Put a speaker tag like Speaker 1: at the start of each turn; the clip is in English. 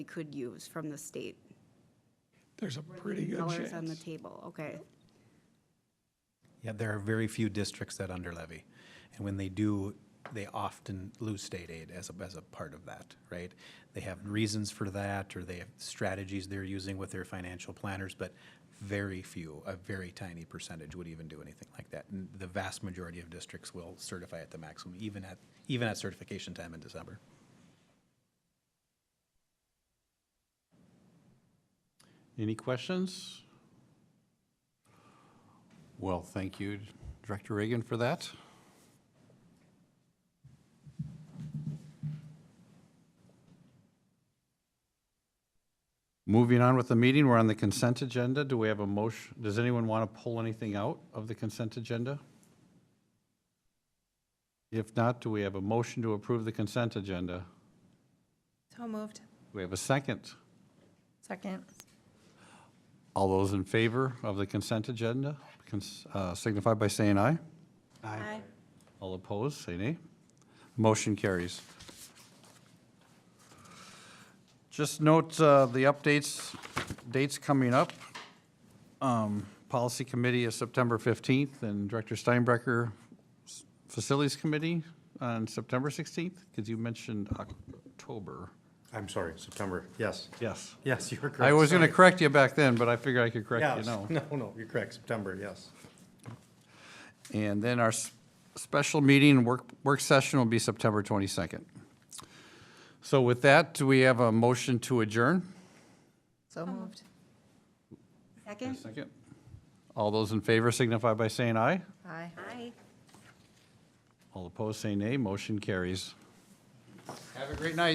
Speaker 1: we could use from the state.
Speaker 2: There's a pretty good
Speaker 1: Dollars on the
Speaker 2: chance.
Speaker 1: table, okay.
Speaker 3: Yeah, there are very few districts that under levy. And when they do, they often lose state aid as a, as a part of that, right? They have reasons for that, or they have strategies they're using with their financial planners, but very few, a very tiny percentage would even do anything like that. And The vast majority of districts will certify at the maximum, even at, even at certification time in December.
Speaker 4: Any questions? Well, thank you, Director Reagan, for that. Moving on with the meeting, we're on the consent agenda. Do we have a motion? Does anyone want to pull anything out of the consent agenda? If not, do we have a motion to approve the consent agenda? Do
Speaker 5: So moved.
Speaker 4: we have a second?
Speaker 5: Second.
Speaker 4: All those in favor of the consent agenda cons- uh, signify by saying aye.
Speaker 5: Aye.
Speaker 4: All opposed, say nay. Motion carries. Just note uh, the updates, dates coming up. Um, Policy Committee is September 15th, and Director Steinbrecker, s- Facilities Committee on September 16th, because you mentioned October.
Speaker 6: I'm sorry, September, yes.
Speaker 4: Yes.
Speaker 6: Yes, you were correct.
Speaker 4: I was going to
Speaker 6: sorry.
Speaker 4: correct you back then, but I figured I could correct you
Speaker 6: Yes,
Speaker 4: now.
Speaker 6: no, no, you're correct, September, yes.
Speaker 4: And then our s- special meeting, work, work session will be September 22nd. So with that, do we have a motion to adjourn?
Speaker 5: So moved.
Speaker 1: Second?
Speaker 4: Second. All those in favor signify by saying aye.
Speaker 5: Aye.
Speaker 1: Aye.
Speaker 4: All opposed, say nay. Motion carries. Have a great night.